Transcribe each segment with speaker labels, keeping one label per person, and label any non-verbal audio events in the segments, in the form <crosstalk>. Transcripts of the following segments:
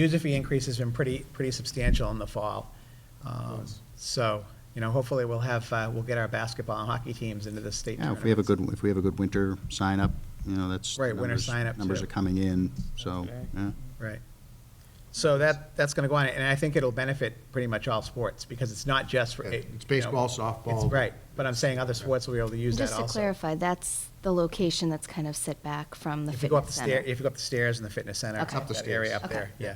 Speaker 1: User fee increase has been pretty, pretty substantial in the fall. Um,
Speaker 2: Yes.
Speaker 1: So, you know, hopefully we'll have, uh, we'll get our basketball and hockey teams into the state
Speaker 3: Yeah,
Speaker 1: tournament.
Speaker 3: if we have a good, if we have a good winter sign-up, you know, that's.
Speaker 1: Right, winter
Speaker 3: numbers-
Speaker 1: sign-up,
Speaker 3: Numbers
Speaker 1: too.
Speaker 3: are coming in, so,
Speaker 2: Okay.
Speaker 3: yeah.
Speaker 1: Right. So that, that's going to go on, and I think it'll benefit pretty much all sports, because it's not just for.
Speaker 2: Yeah,
Speaker 1: it-
Speaker 2: it's baseball,
Speaker 1: you know,
Speaker 2: softball.
Speaker 1: it's- Right, but I'm saying other sports will be able to use that
Speaker 4: Just
Speaker 1: also.
Speaker 4: to clarify, that's the location that's kind of set back from the
Speaker 1: If you go up the
Speaker 4: fitness
Speaker 1: stair,
Speaker 4: center.
Speaker 1: if you go up the stairs in the fitness center.
Speaker 4: Okay. Up
Speaker 2: the
Speaker 1: that Area
Speaker 2: stairs.
Speaker 1: up there,
Speaker 4: Okay.
Speaker 1: yeah.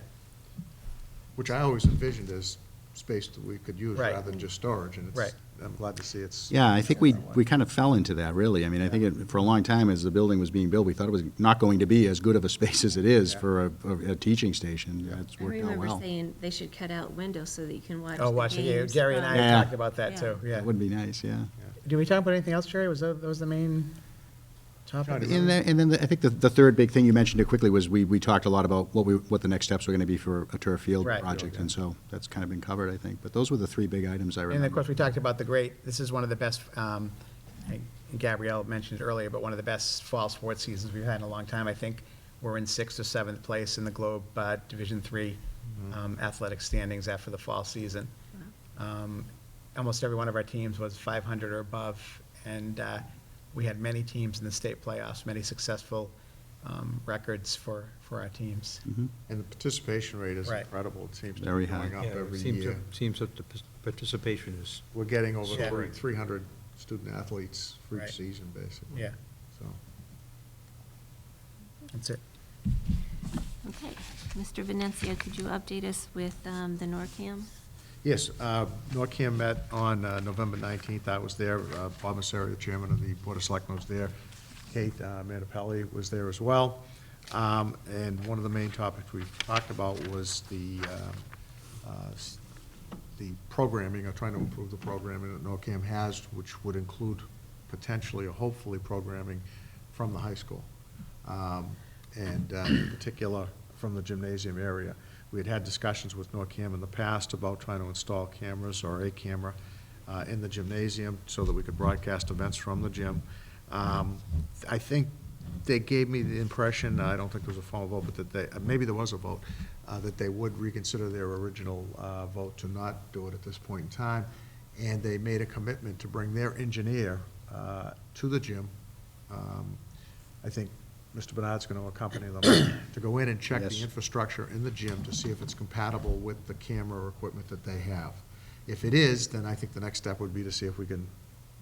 Speaker 2: Which I always envisioned as space that we could use
Speaker 1: Right.
Speaker 2: rather than just storage, and it's,
Speaker 1: Right.
Speaker 2: I'm glad to see it's.
Speaker 3: Yeah, I think we, we kind of fell into that, really. I mean, I think it- for a long time, as the building was being built, we thought it was not going to be as good of a <laughs> space as it is
Speaker 2: Yeah.
Speaker 3: for a, a- a teaching station. That's
Speaker 5: I
Speaker 3: worked out
Speaker 5: remember
Speaker 3: well.
Speaker 5: saying they should cut out windows so that you can watch the
Speaker 1: Oh, watch it, yeah,
Speaker 5: games.
Speaker 1: Jerry and I
Speaker 3: Yeah.
Speaker 1: have talked about that too, yeah.
Speaker 3: That would be nice, yeah.
Speaker 1: Did we talk about anything else, Jerry? Was that, that was the main topic?
Speaker 2: Trying to
Speaker 3: And then, and then the- I think the, the third big thing you mentioned it quickly was we, we talked a lot about what we, what the next steps were gonna be for a turf field
Speaker 1: Right.
Speaker 3: project, and so that's kind of been covered, I think. But those were the three big items I
Speaker 1: And
Speaker 3: remember.
Speaker 1: of course, we talked about the great, this is one of the best, um, I- Gabrielle mentioned it earlier, but one of the best fall sports seasons we've had in a long time. I think we're in sixth or seventh place in the Globe uh, Division Three um, athletic standings after the fall season. Um, Almost every one of our teams was 500 or above, and uh, we had many teams in the state playoffs, many successful um, records for, for our teams.
Speaker 3: Mhm.
Speaker 2: And the participation rate is
Speaker 1: Right.
Speaker 2: incredible. It seems to
Speaker 3: Very
Speaker 2: be going
Speaker 3: high.
Speaker 2: up
Speaker 6: Yeah, it
Speaker 2: every
Speaker 6: seems to-
Speaker 2: year.
Speaker 6: Seems that the p- participation is,
Speaker 2: We're getting
Speaker 1: Yeah.
Speaker 2: over three hundred student athletes for
Speaker 1: Right.
Speaker 2: each season, basically.
Speaker 1: Yeah,
Speaker 2: So,
Speaker 1: that's it.
Speaker 5: Okay. Mr. Venencia, could you update us with um, the NORCAM?
Speaker 2: yes, uh, NORCAM met on uh, November nineteenth. I was there. Uh, Bob Messeri, the chairman of the Board of Selectmen, was there. Kate uh, Manapelli was there as well. Um, And one of the main topics we talked about was the um, uh, s- the programming, or trying to improve the programming that NORCAM has, which would include potentially or hopefully programming from the high school. Um, And uh, in particular, from the gymnasium area. We had had discussions with NORCAM in the past about trying to install cameras or a camera uh, in the gymnasium so that we could broadcast events from the gym. Um, I think they gave me the impression, I don't think there was a formal vote, but that they, uh, maybe there was a vote, uh, that they would reconsider their original uh, vote to not do it at this point in time. And they made a commitment to bring their engineer uh, to the gym. Um, I think Mr. Bernard's going to accompany them to go in and check the
Speaker 3: Yes.
Speaker 2: infrastructure in the gym to see if it's compatible with the camera equipment that they have. If it is, then I think the next step would be to see if we can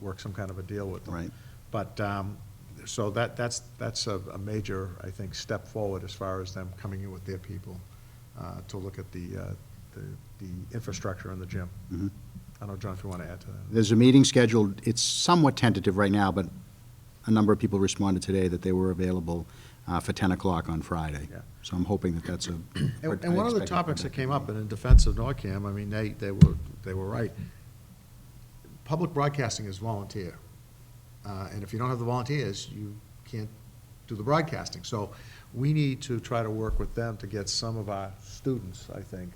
Speaker 2: work some kind of a deal with them.
Speaker 3: Right.
Speaker 2: But, um, so that, that's, that's a, a major, I think, step forward as far as them coming in with their people, uh, to look at the, uh, the, the infrastructure in the gym.
Speaker 3: Mhm.
Speaker 2: I don't know, John, if you want to add to that.
Speaker 3: There's a meeting scheduled, it's somewhat tentative right now, but a number of people responded today that they were available uh, for 10 o'clock on Friday.
Speaker 2: Yeah.
Speaker 3: So I'm hoping that that's a.
Speaker 2: And,
Speaker 3: I
Speaker 2: and one of the
Speaker 3: expect it.
Speaker 2: topics that came up, and in defense of NORCAM, I mean, they, they were, they were right. Public broadcasting is volunteer, uh, and if you don't have the volunteers, you can't do the broadcasting. So we need to try to work with them to get some of our students, I think,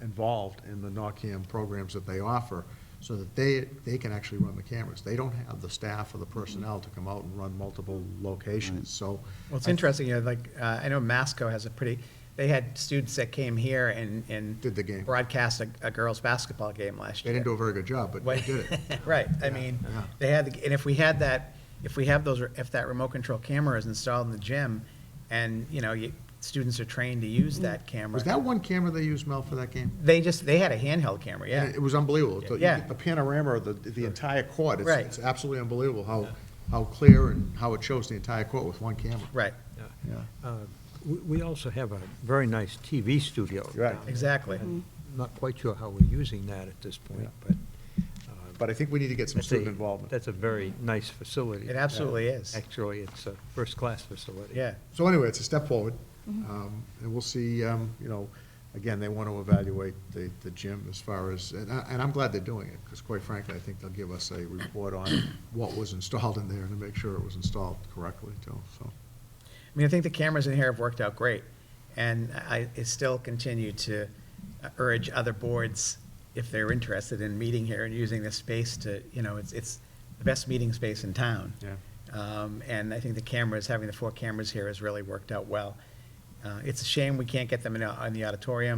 Speaker 2: involved in the NORCAM programs that they offer, so that they, they can actually run the cameras. They don't have the staff or the personnel to come out and run multiple locations, so.
Speaker 1: Well, it's
Speaker 2: I-
Speaker 1: interesting, you know, like, uh, I know Masco has a pretty, they had students that came here and, and.
Speaker 2: Did the game.
Speaker 1: Broadcast a, a girls' basketball game last
Speaker 2: They
Speaker 1: year.
Speaker 2: didn't do a very good job, but they did it.
Speaker 1: <laughs> Right, I
Speaker 2: Yeah,
Speaker 1: mean,
Speaker 2: yeah.
Speaker 1: they had, the- and if we had that, if we have those, if that remote control camera is installed in the gym, and, you know, you, students are trained to use that camera.
Speaker 2: Mm. Was that one camera they used, Mel, for that game?
Speaker 1: They just, they had a handheld camera, yeah.
Speaker 2: And It was unbelievable. The-
Speaker 1: Yeah.
Speaker 2: The panorama of the, the entire court, it's,
Speaker 1: Right.
Speaker 2: it's absolutely unbelievable how, how clear and how it shows the entire court with one camera.
Speaker 1: Right,
Speaker 2: Yeah.
Speaker 6: uh, we- we also have a very nice TV studio.
Speaker 2: Right.
Speaker 6: down there.
Speaker 1: exactly.
Speaker 6: I'm Not quite sure how we're using that at this point, but. uh,
Speaker 2: But I think we need to get some
Speaker 6: that's a-
Speaker 2: student involvement.
Speaker 6: That's a very nice facility. Uh,
Speaker 1: It absolutely is,
Speaker 6: Actually, it's a first-class facility.
Speaker 1: yeah.
Speaker 2: So anyway, it's a step forward, um, and we'll see, um, you know, again, they want to evaluate the, the gym as far as, and I, and I'm glad they're doing it, because quite frankly, I think they'll give us a report on what was installed in there and to make sure it was installed correctly too, so.
Speaker 1: I mean, I think the cameras in here have worked out great, and I I still continue to uh, urge other boards, if they're interested in meeting here and using this space to, you know, it's, it's the best meeting space in town.
Speaker 2: Yeah.
Speaker 1: Um, And I think the cameras, having the four cameras here has really worked out well. Um, Uh, It's a shame we can't get them in, a- in the auditorium,